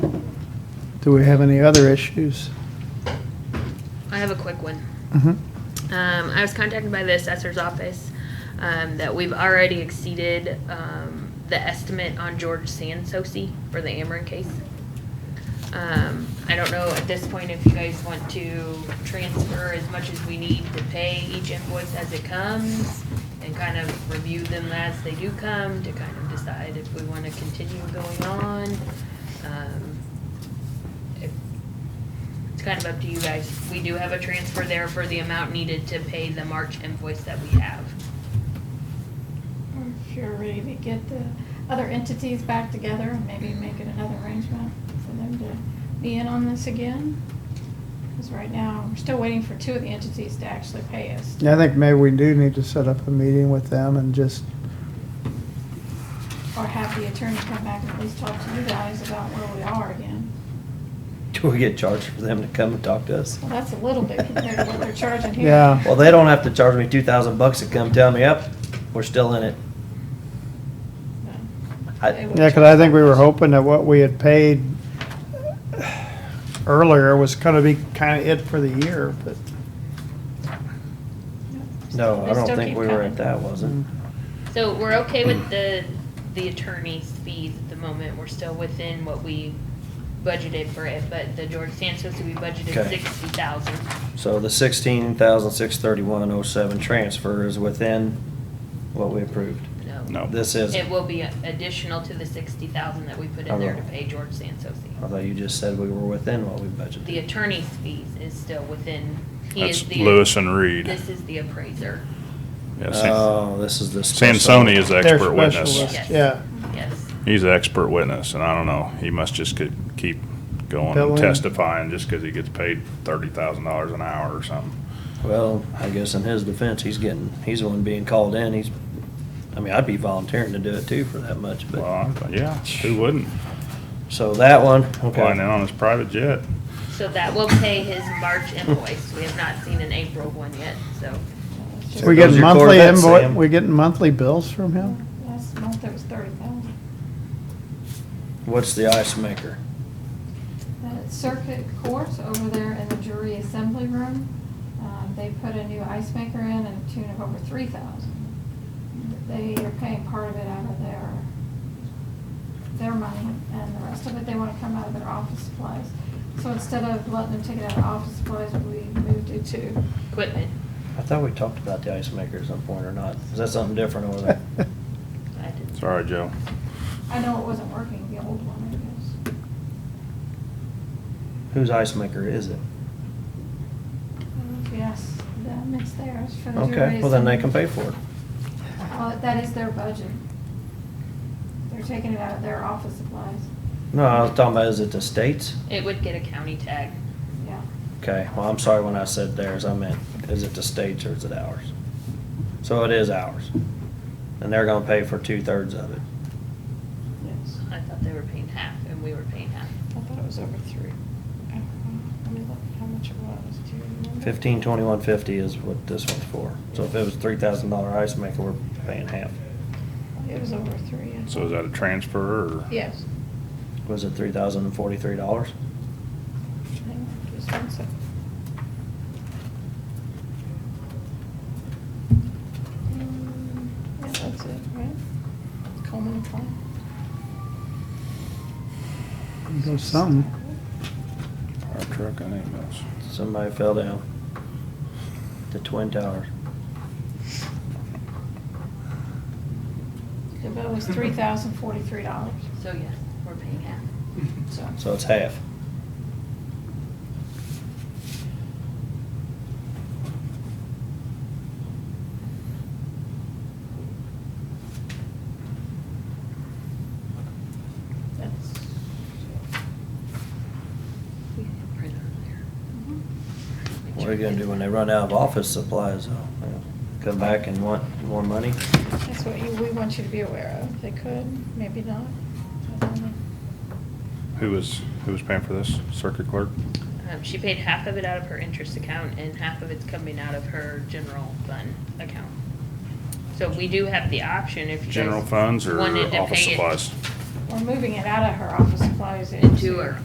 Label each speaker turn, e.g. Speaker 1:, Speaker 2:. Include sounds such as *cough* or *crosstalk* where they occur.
Speaker 1: Do we have any other issues?
Speaker 2: I have a quick one.
Speaker 1: Mhm.
Speaker 2: Um, I was contacted by the assessor's office, um, that we've already exceeded, um, the estimate on George Sansosi for the Ameren case. Um, I don't know at this point if you guys want to transfer as much as we need to pay each invoice as it comes and kind of review them as they do come to kind of decide if we want to continue going on. Um, if- It's kind of up to you guys. We do have a transfer there for the amount needed to pay the March invoice that we have.
Speaker 3: Or if you're ready to get the other entities back together and maybe make it another arrangement for them to be in on this again. Because right now, we're still waiting for two of the entities to actually pay us.
Speaker 1: Yeah, I think maybe we do need to set up a meeting with them and just,
Speaker 3: Or have the attorney come back and at least talk to you guys about where we are again.
Speaker 4: *laughs* Do we get charged for them to come and talk to us?
Speaker 3: Well, that's a little bit compared to what they're charging here.
Speaker 1: Yeah.
Speaker 4: Well, they don't have to charge me two thousand bucks to come tell me, yep, we're still in it. I,
Speaker 1: yeah, because I think we were hoping that what we had paid earlier was gonna be kind of it for the year, but,
Speaker 4: no,
Speaker 3: They
Speaker 4: I don't
Speaker 3: still
Speaker 4: think
Speaker 3: keep
Speaker 4: we were
Speaker 3: coming.
Speaker 4: at that, Hmm. was it?
Speaker 2: So we're okay with the, the attorney's fees at the moment, we're still within what we budgeted for it, but the George Santos, we budgeted
Speaker 4: Okay.
Speaker 2: sixty thousand.
Speaker 4: So the sixteen thousand six thirty-one oh seven transfer is within what we approved.
Speaker 5: No.
Speaker 4: This is,
Speaker 2: It
Speaker 4: I
Speaker 2: will be additional to the sixty thousand that we put in there to pay George Santos.
Speaker 4: thought you just said we were within what we budgeted.
Speaker 2: The attorney's fees is still within, he is
Speaker 5: That's
Speaker 2: the.
Speaker 5: Lewis and Reed.
Speaker 2: This is the appraiser,
Speaker 5: Yeah, San-
Speaker 4: Oh, this is the. special-
Speaker 5: Sansoni is the
Speaker 1: They're
Speaker 5: expert witness.
Speaker 1: specialists.
Speaker 2: Yes.
Speaker 1: yeah.
Speaker 2: yes.
Speaker 5: He's the expert witness, and I don't know, he must just could keep going
Speaker 1: Billing.
Speaker 5: and testifying just because he gets paid thirty thousand dollars an hour or something.
Speaker 4: Well, I guess in his defense, he's getting, he's the one being called in, he's, I mean, I'd be volunteering to do it too for that much,
Speaker 5: Well,
Speaker 4: but,
Speaker 5: I- yeah, who wouldn't?
Speaker 4: so that one,
Speaker 5: Flying
Speaker 4: okay.
Speaker 5: in on his private jet.
Speaker 2: So that will pay his March invoice, we have not seen an April one yet, so.
Speaker 3: Just-
Speaker 4: There
Speaker 1: We
Speaker 4: goes
Speaker 1: getting
Speaker 4: your
Speaker 1: monthly
Speaker 4: Corvette,
Speaker 1: invoice,
Speaker 4: Sam.
Speaker 1: we getting monthly bills from him?
Speaker 3: Last month, it was thirty thousand.
Speaker 4: What's the ice maker?
Speaker 3: The circuit court over there in the jury assembly room, um, they put a new ice maker in at a tune of over three thousand. They are paying part of it out of their, their money, and the rest of it, they wanna come out of their office supplies. So instead of letting them take it out of office supplies, we moved it to,
Speaker 2: Equipment,
Speaker 4: I thought we talked about the ice maker at some point or not. Is that something different over there?
Speaker 2: I didn't.
Speaker 5: Sorry, Joe.
Speaker 3: I know it wasn't working, the old one, I guess.
Speaker 4: Whose ice maker is it?
Speaker 3: Yes, them, it's theirs for the jury.
Speaker 4: Okay, well then
Speaker 3: assembly.
Speaker 4: they can pay for it.
Speaker 3: Well, that is their budget. They're taking it out of their office supplies,
Speaker 4: No, I was talking about, is it the state's?
Speaker 2: It would get a county tag.
Speaker 3: yeah.
Speaker 4: Okay, well, I'm sorry when I said theirs, I meant, is it the state's or is it ours? So it is ours. And they're gonna pay for two-thirds of it.
Speaker 3: Yes,
Speaker 2: I thought they were paying half and we were paying half.
Speaker 3: I thought it was over three. I don't know. Let me look how much it was, do you remember?
Speaker 4: Fifteen twenty-one fifty is what this one's for. So if it was three thousand dollar ice maker, we're paying half.
Speaker 3: It was over three. I
Speaker 5: So is that a transfer or?
Speaker 3: thought. Yes.
Speaker 4: Was it three thousand and forty-three dollars?
Speaker 3: Hang on, just one sec. Mm, Yeah, that's it, right? Coleman and Klein.
Speaker 1: *laughs* Go some,
Speaker 5: Our truck and ambulance.
Speaker 4: Somebody fell down. The Twin Towers.
Speaker 3: The bill was three thousand forty-three dollars,
Speaker 2: So yes, we're paying half.
Speaker 3: so.
Speaker 4: So it's half.
Speaker 3: That's.
Speaker 2: We had a printer
Speaker 3: Mm-hmm.
Speaker 2: there.
Speaker 4: What are you gonna do when they run out of office supplies though? Come back and want more money?
Speaker 3: That's what you, we want you to be aware of. They could, maybe not. I don't know.
Speaker 5: Who was, who was paying for this? Circuit clerk?
Speaker 2: Um, she paid half of it out of her interest account and half of it's coming out of her general fund account. So we do have the option if you guys
Speaker 5: General funds or
Speaker 2: wanted to
Speaker 5: office
Speaker 2: pay it
Speaker 5: supplies?
Speaker 3: We're moving it out of her office supplies
Speaker 2: Into her